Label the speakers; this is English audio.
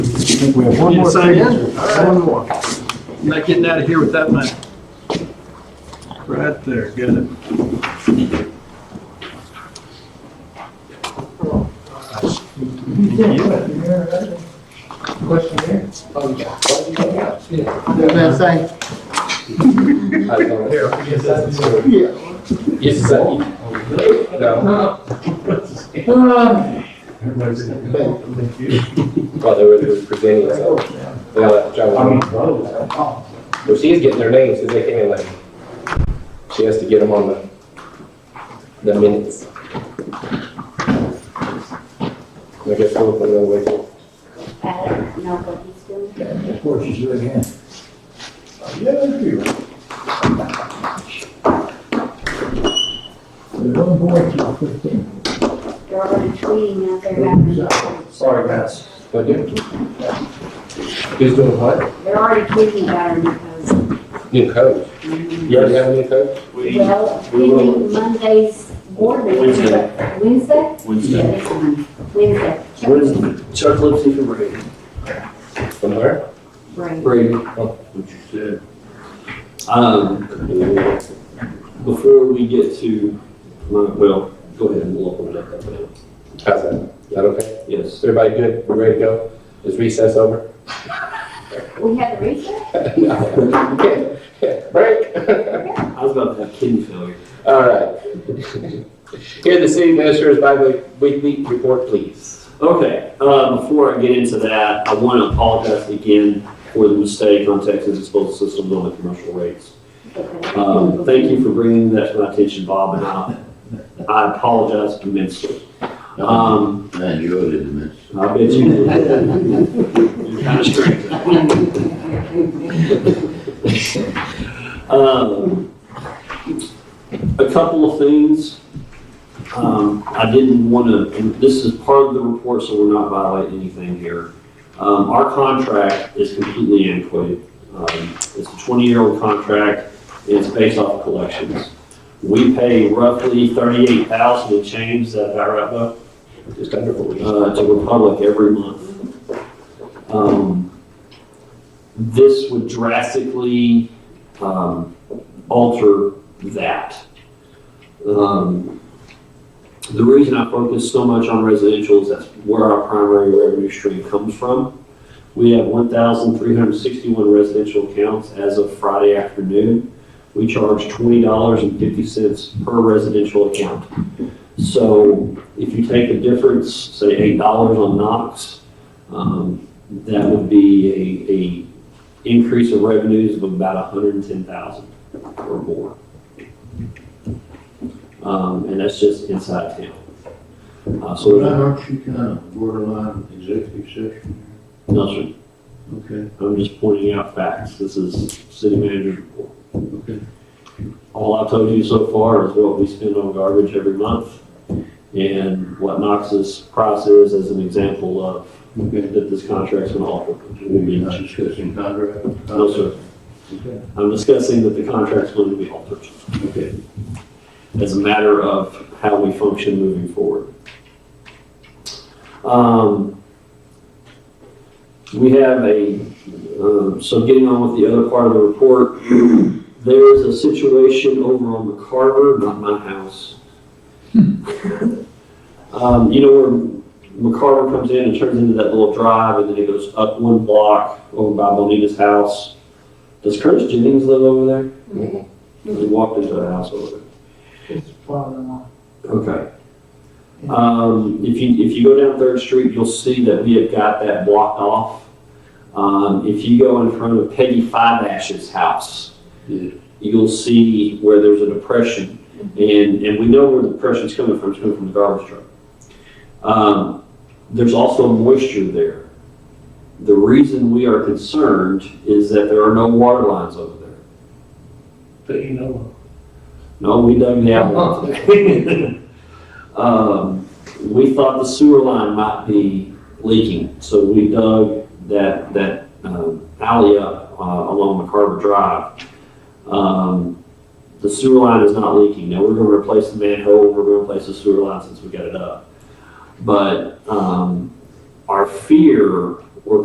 Speaker 1: think we have one more.
Speaker 2: Sign in?
Speaker 1: signature.
Speaker 2: All right.
Speaker 1: One more.
Speaker 2: Not getting out of here with that money. Right there, got it.
Speaker 3: That's saying,
Speaker 4: Yes, is that you? No. Well, they were they were presenting, so. they let John- Well, she is getting their names, because they came in late. She has to get them on the, the minutes. I guess we'll put it away.
Speaker 5: I don't know what he's doing.
Speaker 1: Of course, she's doing hand. Yeah, thank you. There's one boy, she's fifteen.
Speaker 5: They're already tweeting out there about her.
Speaker 1: Sorry, guys.
Speaker 4: What do? Who's doing what?
Speaker 5: They're already tweeting about her because,
Speaker 4: New coach. You already have a new coach?
Speaker 5: well, we meet Monday's board meeting, but Wednesday? Yeah,
Speaker 6: Wednesday.
Speaker 5: this one, Wednesday.
Speaker 6: Wednesday. Chuck Lipsy from Reagan.
Speaker 4: From where?
Speaker 5: Right.
Speaker 6: Reagan. What you said. Um, before we get to, my well, go ahead and look on that up now.
Speaker 4: How's that? Is that okay? Is
Speaker 6: Yes.
Speaker 4: everybody good? We ready to go? Is recess over?
Speaker 5: We had the reset?
Speaker 4: Break.
Speaker 6: I was about to have kidney failure.
Speaker 4: All right. Here, the city administrator's bi-weekly report, please.
Speaker 6: Okay, uh, before I get into that, I want to apologize again for the mistake on Texas disposal systems on the commercial rates. Um, Thank you for bringing that to my attention, Bob, and I, I apologize immensely. Um,
Speaker 7: I enjoyed it immensely.
Speaker 6: I bet you did. You're kind of strange. Um, A couple of things. Um, I didn't want to, and this is part of the report, so we're not violating anything here. Um, Our contract is completely antiquated. Um, It's a 20-year-old contract, and it's based off collections. We pay roughly 38,000 and change, is that about right, Bo?
Speaker 4: Just under what we.
Speaker 6: uh, to Republic every month. Um, This would drastically um, alter that. Um, The reason I focus so much on residential is that's where our primary revenue stream comes from. We have 1,361 residential accounts as of Friday afternoon. We charge $20.50 per residential account. So if you take the difference, say eight dollars on Knox, um, that would be a, a increase of revenues of about a hundred and ten thousand or more. Um, and that's just inside town. Uh,
Speaker 7: Well,
Speaker 6: so, there's-
Speaker 7: aren't you kind of borderline executive session?
Speaker 6: no, sir,
Speaker 7: Okay,
Speaker 6: I'm just pointing out facts. This is city manager's report.
Speaker 7: okay.
Speaker 6: All I've told you so far is what we spend on garbage every month and what Knox's price is as an example of
Speaker 7: Okay.
Speaker 6: that this contract's gonna offer.
Speaker 7: We're not discussing contract?
Speaker 6: No, sir.
Speaker 7: Okay.
Speaker 6: I'm discussing that the contract's going to be altered
Speaker 7: Okay.
Speaker 6: as a matter of how we function moving forward. Um, We have a, um, so getting on with the other part of the report, there is a situation over on McCarver, not my house. Um, You know where McCarver comes in and turns into that little drive, and then it goes up one block over by Bonita's house? Does Curtis Jennings live over there?
Speaker 4: Mhm.
Speaker 6: We walked into the house over there.
Speaker 3: it's probably not.
Speaker 6: Okay. Um, if you, if you go down Third Street, you'll see that we have got that blocked off. Um, if you go in front of Peggy Five Ash's house,
Speaker 7: Yeah.
Speaker 6: you'll see where there's a depression. And, and we know where the depression's coming from, it's coming from the garbage truck. Um, there's also moisture there. The reason we are concerned is that there are no water lines over there.
Speaker 7: But you know.
Speaker 6: No, we dug that one. Um, we thought the sewer line might be leaking, so we dug that, that, um, alley up, uh, along McCarver Drive. Um, the sewer line is not leaking. Now, we're gonna replace the manhole, we're gonna replace the sewer line since we got it up. But, um, our fear